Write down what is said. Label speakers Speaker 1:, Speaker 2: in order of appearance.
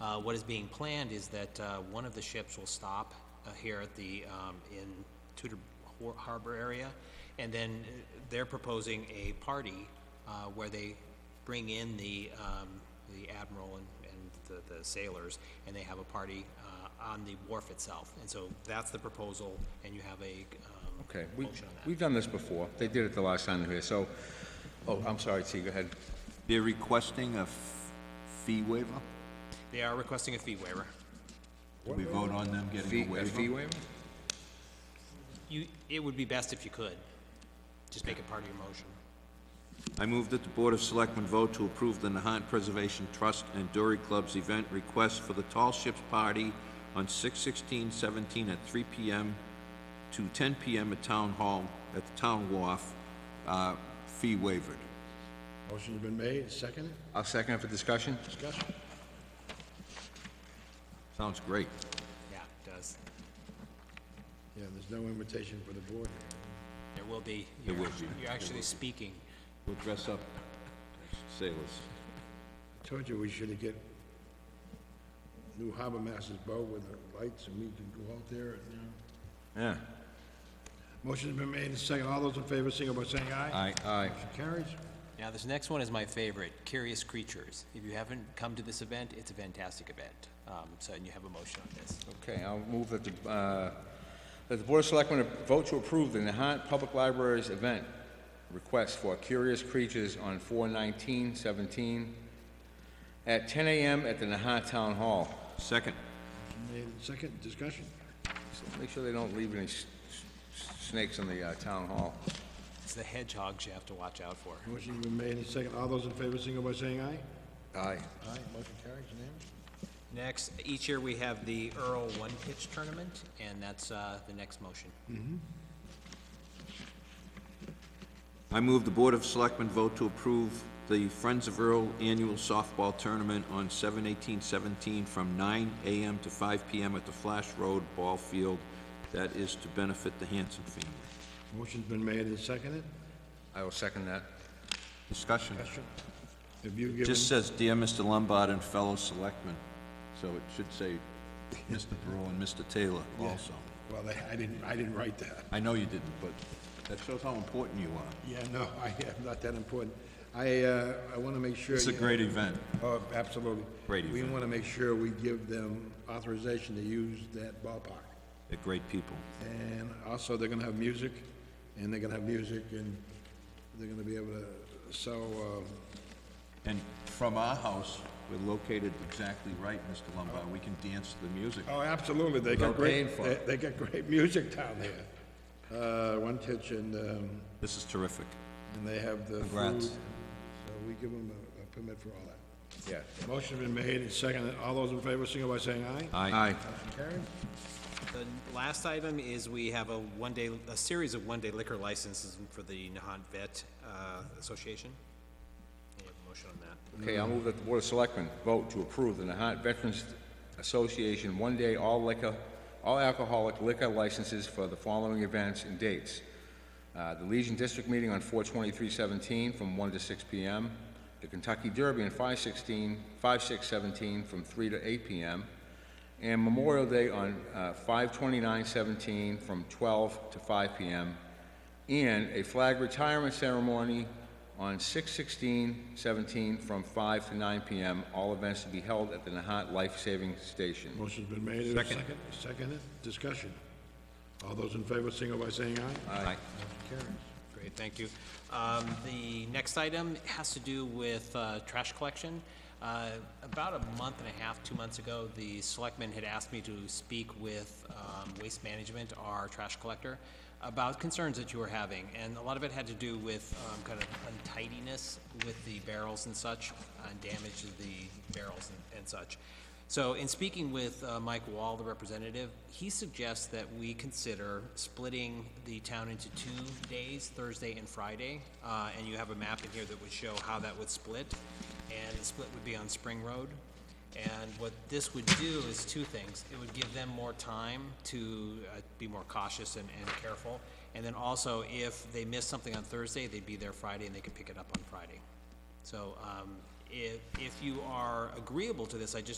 Speaker 1: Uh, What is being planned is that uh, one of the ships will stop uh, here at the, um, in Tudor Har- Harbor area, and then uh, they're proposing a party uh, where they bring in the, um, the admiral and and the- the sailors, and they have a party uh, on the wharf itself. And so that's the proposal, and you have a um,
Speaker 2: Okay, we,
Speaker 1: motion on that.
Speaker 2: we've done this before. They did it the last time they were here, so, oh, I'm sorry, T, go ahead.
Speaker 3: They're requesting a f- fee waiver?
Speaker 1: They are requesting a fee waiver.
Speaker 3: Did we vote on them
Speaker 2: Fee,
Speaker 3: getting a
Speaker 2: a fee
Speaker 3: waiver?
Speaker 2: uh, waiver?
Speaker 1: You, it would be best if you could, just make it part of your motion.
Speaker 3: I move that the Board of Selectmen vote to approve the Nahant Preservation Trust and Dory Club's event request for the Tall Ships Party on 6/16/17 at 3 PM to 10 PM at Town Hall, at the Town Wharf, uh, fee waivered.
Speaker 4: Motion's been made, seconded,
Speaker 2: I'll second it for discussion.
Speaker 4: discussion.
Speaker 3: Sounds great.
Speaker 1: Yeah, it does.
Speaker 4: Yeah, there's no invitation for the board.
Speaker 1: There will be,
Speaker 3: There
Speaker 1: you're
Speaker 3: will
Speaker 1: actu-
Speaker 3: be.
Speaker 1: you're actually speaking.
Speaker 3: We'll dress up as sailors.
Speaker 4: Told you we should have get new harbor master's boat with the lights and we can go out there and, you know.
Speaker 2: Yeah.
Speaker 4: Motion's been made, second, all those in favor, single by saying aye.
Speaker 3: Aye.
Speaker 2: Aye.
Speaker 4: Motion carries.
Speaker 1: Now, this next one is my favorite, Curious Creatures. If you haven't come to this event, it's a fantastic event. Um, So, and you have a motion on this.
Speaker 2: Okay, I'll move that the, uh, that the Board of Selectmen vote to approve the Nahant Public Library's event request for Curious Creatures on 4/19/17 at 10 a.m. at the Nahant Town Hall.
Speaker 3: Second.
Speaker 4: Made in second, discussion.
Speaker 2: So Make sure they don't leave any s- s- snakes in the uh, town hall.
Speaker 1: It's the hedgehogs you have to watch out for.
Speaker 4: Motion's been made, second, all those in favor, single by saying aye.
Speaker 2: Aye.
Speaker 4: Aye, motion carries, unanimous.
Speaker 1: Next, each year we have the Earl One Pitch Tournament, and that's uh, the next motion.
Speaker 3: I move the Board of Selectmen vote to approve the Friends of Earl Annual Softball Tournament on 7/18/17 from 9 AM to 5 PM at the Flash Road Ball Field. That is to benefit the Hanson family.
Speaker 4: Motion's been made and seconded.
Speaker 2: I will second that.
Speaker 3: Discussion.
Speaker 4: Question. Have you given,
Speaker 3: Just says, "Dear Mr. Lombard and fellow selectmen," so it should say, "Mr. Brew and Mr. Taylor" also.
Speaker 4: well, I- I didn't, I didn't write that.
Speaker 3: I know you didn't, but that shows how important you are.
Speaker 4: Yeah, no, I am not that important. I, uh, I want to make sure.
Speaker 3: It's a great event.
Speaker 4: Oh, absolutely.
Speaker 3: Great
Speaker 4: We
Speaker 3: event.
Speaker 4: want to make sure we give them authorization to use that ballpark.
Speaker 3: They're great people.
Speaker 4: And also, they're going to have music, and they're going to have music, and they're going to be able to, so, um,
Speaker 3: And from our house, we're located exactly right, Mr. Lombard, we can dance to the music.
Speaker 4: oh, absolutely, they got
Speaker 2: Without paying
Speaker 4: great,
Speaker 2: for it.
Speaker 4: they- they got great music down there. Uh, One Titch, and, um,
Speaker 3: This is terrific.
Speaker 4: and they have the food.
Speaker 3: Congrats.
Speaker 4: So we give them a- a permit for all that.
Speaker 2: Yeah.
Speaker 4: Motion's been made and seconded. All those in favor, signal by saying aye.
Speaker 2: Aye.
Speaker 4: Motion carried.
Speaker 1: The last item is we have a one-day, a series of one-day liquor licenses for the Nahant Vet uh, Association. You have a motion on that.
Speaker 2: Okay, I'll move that the Board of Selectmen vote to approve the Nahat Veterans Association one-day all liquor, all alcoholic liquor licenses for the following events and dates. Uh, The Legion District Meeting on 4/23/17 from 1 to 6 p.m. The Kentucky Derby on 5/16, 5/6/17 from 3 to 8 p.m. And Memorial Day on uh, 5/29/17 from 12 to 5 p.m. And a flag retirement ceremony on 6/16/17 from 5 to 9 p.m. All events to be held at the Nahat Life Saving Station.
Speaker 4: Motion's been made, is there a second? Seconded, discussion. All those in favor, signal by saying aye.
Speaker 2: Aye.
Speaker 1: Great, thank you. Um, The next item has to do with uh, trash collection. Uh, About a month and a half, two months ago, the selectmen had asked me to speak with um, Waste Management, our trash collector, about concerns that you were having, and a lot of it had to do with um, kind of untidiness with the barrels and such, and damage to the barrels and- and such. So in speaking with uh, Mike Wall, the representative, he suggests that we consider splitting the town into two days, Thursday and Friday. Uh, And you have a map in here that would show how that would split. And the split would be on Spring Road. And what this would do is two things. It would give them more time to uh, be more cautious and, and careful. And then also, if they miss something on Thursday, they'd be there Friday and they could pick it up on Friday. So um, if, if you are agreeable to this, I just